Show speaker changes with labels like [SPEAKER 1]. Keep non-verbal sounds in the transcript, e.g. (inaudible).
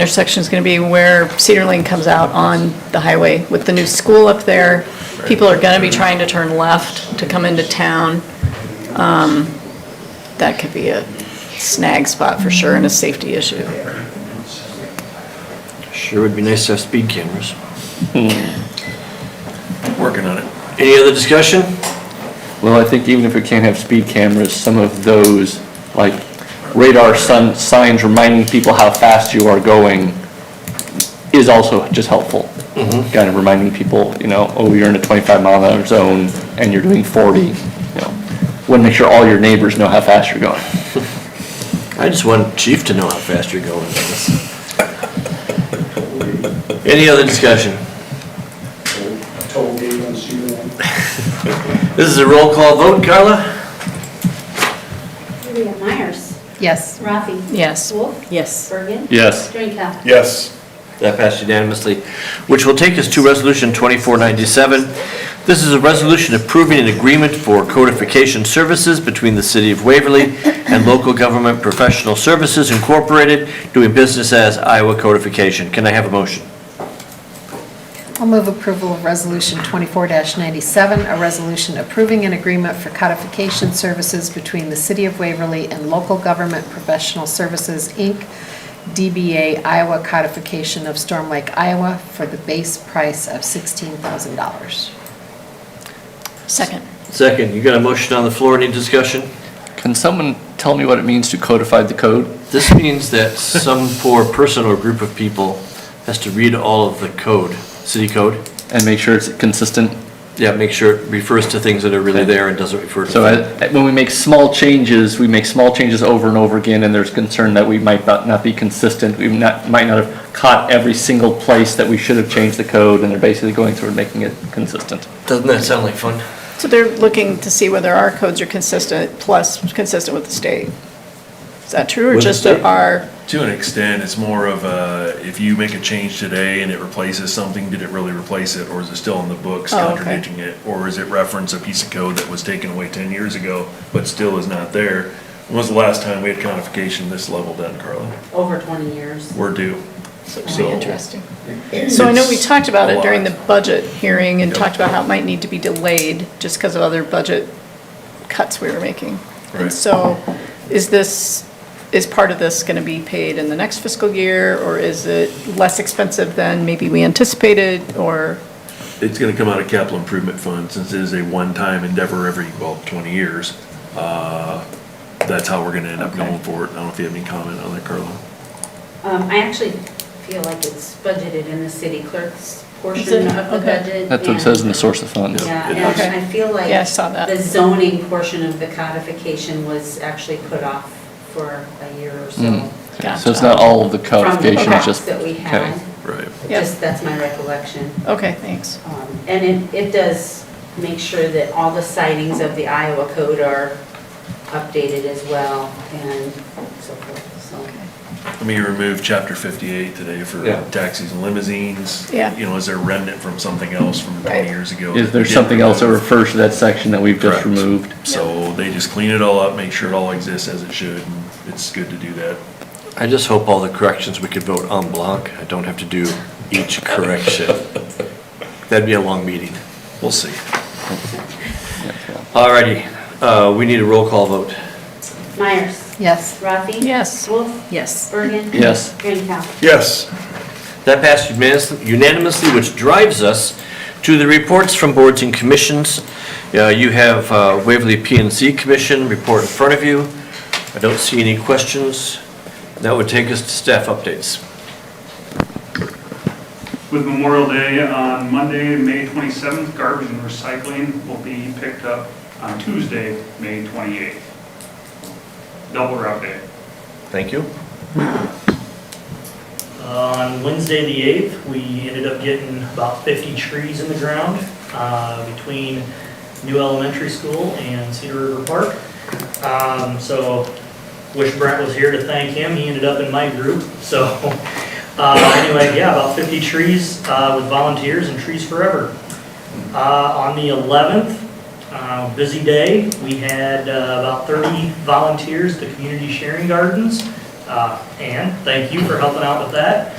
[SPEAKER 1] intersection is going to be where Cedar Lane comes out on the highway. With the new school up there, people are going to be trying to turn left to come into town. Um, That could be a snag spot for sure and a safety issue.
[SPEAKER 2] Sure would be nice to have speed cameras.
[SPEAKER 3] Hmm. Working on it.
[SPEAKER 2] Any other discussion?
[SPEAKER 4] Well, I think even if we can't have speed cameras, some of those, like radar sun, signs reminding people how fast you are going is also just helpful. Kind of reminding people, you know, oh, you're in a twenty-five mile an hour zone and you're doing forty, you know. Wouldn't make sure all your neighbors know how fast you're going.
[SPEAKER 2] I just want Chief to know how fast you're going. Any other discussion?
[SPEAKER 5] toll gate on Cedar Lane.
[SPEAKER 2] This is a roll call vote, Carla?
[SPEAKER 6] Vivian Myers.
[SPEAKER 7] Yes.
[SPEAKER 6] Rafi.
[SPEAKER 1] Yes.
[SPEAKER 6] Wolf.
[SPEAKER 1] Yes.
[SPEAKER 6] Bergen.
[SPEAKER 4] Yes.
[SPEAKER 6] Drinkow.
[SPEAKER 3] Yes.
[SPEAKER 2] That passed unanimously, which will take us to Resolution 2497. This is a resolution approving an agreement for codification services between the City of Waverly and Local Government Professional Services Incorporated, doing business as Iowa Codification. Can I have a motion?
[SPEAKER 7] I'll move approval of Resolution 24-97, a resolution approving an agreement for codification services between the City of Waverly and Local Government Professional Services, Inc., DBA Iowa Codification of Storm Lake, Iowa, for the base price of $16,000.
[SPEAKER 1] Second.
[SPEAKER 2] Second, you got a motion on the floor, any discussion?
[SPEAKER 4] Can someone tell me what it means to codify the code?
[SPEAKER 2] This means that (laughs) some poor person or group of people has to read all of the code, city code.
[SPEAKER 4] And make sure it's consistent?
[SPEAKER 2] Yeah, make sure it refers to things that are really there and doesn't refer to.
[SPEAKER 4] So I- when we make small changes, we make small changes over and over again, and there's concern that we might not, not be consistent. We not, might not have caught every single place that we should have changed the code, and they're basically going through and making it consistent.
[SPEAKER 2] Doesn't that sound like fun?
[SPEAKER 1] So they're looking to see whether our codes are consistent, plus consistent with the state. Is that true, or
[SPEAKER 2] With the
[SPEAKER 1] just
[SPEAKER 2] state?
[SPEAKER 1] our,
[SPEAKER 3] To an extent, it's more of a, if you make a change today and it replaces something, did it really replace it? Or is it still in the books
[SPEAKER 1] Oh, okay.
[SPEAKER 3] contradicting it? Or is it reference a piece of code that was taken away ten years ago, but still is not there? When was the last time we had codification this level done, Carla?
[SPEAKER 6] Over 20 years.
[SPEAKER 3] We're due.
[SPEAKER 1] Really
[SPEAKER 3] So-
[SPEAKER 1] interesting. So I know we talked about it during the
[SPEAKER 3] It's a lot.
[SPEAKER 1] budget hearing and
[SPEAKER 3] Yep.
[SPEAKER 1] talked about how it might need to be delayed just because of other budget cuts we were making. And
[SPEAKER 3] Right.
[SPEAKER 1] so is this, is part of this going to be paid in the next fiscal year? Or is it less expensive than maybe we anticipated or?
[SPEAKER 3] It's gonna come out of capital improvement fund, since it is a one-time endeavor every, well, twenty years. Uh, That's how we're gonna end up
[SPEAKER 1] Okay.
[SPEAKER 3] going for it. I don't know if you have any comment on that, Carla?
[SPEAKER 6] Um, I actually feel like it's budgeted in the city clerk's
[SPEAKER 1] Is it?
[SPEAKER 6] portion of the
[SPEAKER 1] Okay.
[SPEAKER 6] budget.
[SPEAKER 4] That's what it
[SPEAKER 6] and-
[SPEAKER 4] says in the source of funds.
[SPEAKER 6] Yeah,
[SPEAKER 3] It
[SPEAKER 6] and
[SPEAKER 1] is.
[SPEAKER 6] I feel like.
[SPEAKER 1] Yeah, I saw that.
[SPEAKER 6] The zoning portion of the codification was actually put off for a year or so.
[SPEAKER 4] Mm. So it's not all of the codification, it's just.
[SPEAKER 6] From the past that we
[SPEAKER 4] okay.
[SPEAKER 6] had.
[SPEAKER 3] Right.
[SPEAKER 1] Yeah.
[SPEAKER 6] Just, that's my recollection.
[SPEAKER 1] Okay, thanks.
[SPEAKER 6] Um, And it, it does make sure that all the sightings of the Iowa code are updated as well and so forth, so.
[SPEAKER 3] I mean, you removed chapter fifty-eight today for
[SPEAKER 4] Yeah.
[SPEAKER 3] taxis and limousines.
[SPEAKER 1] Yeah.
[SPEAKER 3] You know, is there remnant from something else from
[SPEAKER 1] Right.
[SPEAKER 3] twenty years ago?
[SPEAKER 4] Is
[SPEAKER 3] that
[SPEAKER 4] there
[SPEAKER 3] they didn't
[SPEAKER 4] something else that
[SPEAKER 3] remove?
[SPEAKER 4] refers to that section that we've just
[SPEAKER 3] Correct.
[SPEAKER 4] removed?
[SPEAKER 3] So they just clean it all up, make sure it all exists as it should, and it's good to do that.
[SPEAKER 2] I just hope all the corrections, we could vote en bloc. I don't have to do each (laughs) correction. That'd be a long meeting.
[SPEAKER 3] We'll see.
[SPEAKER 2] Alrighty, uh, we need a roll call vote.
[SPEAKER 6] Myers?
[SPEAKER 7] Yes.
[SPEAKER 6] Rafi?
[SPEAKER 1] Yes.
[SPEAKER 6] Wolf?
[SPEAKER 1] Yes.
[SPEAKER 6] Bergen?
[SPEAKER 4] Yes.
[SPEAKER 6] Drinkow?
[SPEAKER 3] Yes.
[SPEAKER 2] That passed unanimous- unanimously, which drives us to the reports from boards and commissions. Uh, You have uh, Waverly P and Z Commission report in front of you. I don't see any questions. That would take us to staff updates.
[SPEAKER 8] With Memorial Day on Monday, May 27th, garbage and recycling will be picked up on Tuesday, May 28th. Double route day.
[SPEAKER 2] Thank you.
[SPEAKER 9] Uh, On Wednesday, the 8th, we ended up getting about 50 trees in the ground uh, between New Elementary School and Cedar River Park. Um, So wish Brent was here to thank him, he ended up in my group. So (laughs) uh, anyway, yeah, about 50 trees uh, with volunteers and Trees Forever. Uh, On the 11th, uh, busy day, we had uh, about 30 volunteers at the Community Sharing Gardens. Uh, Ann, thank you for helping out with that.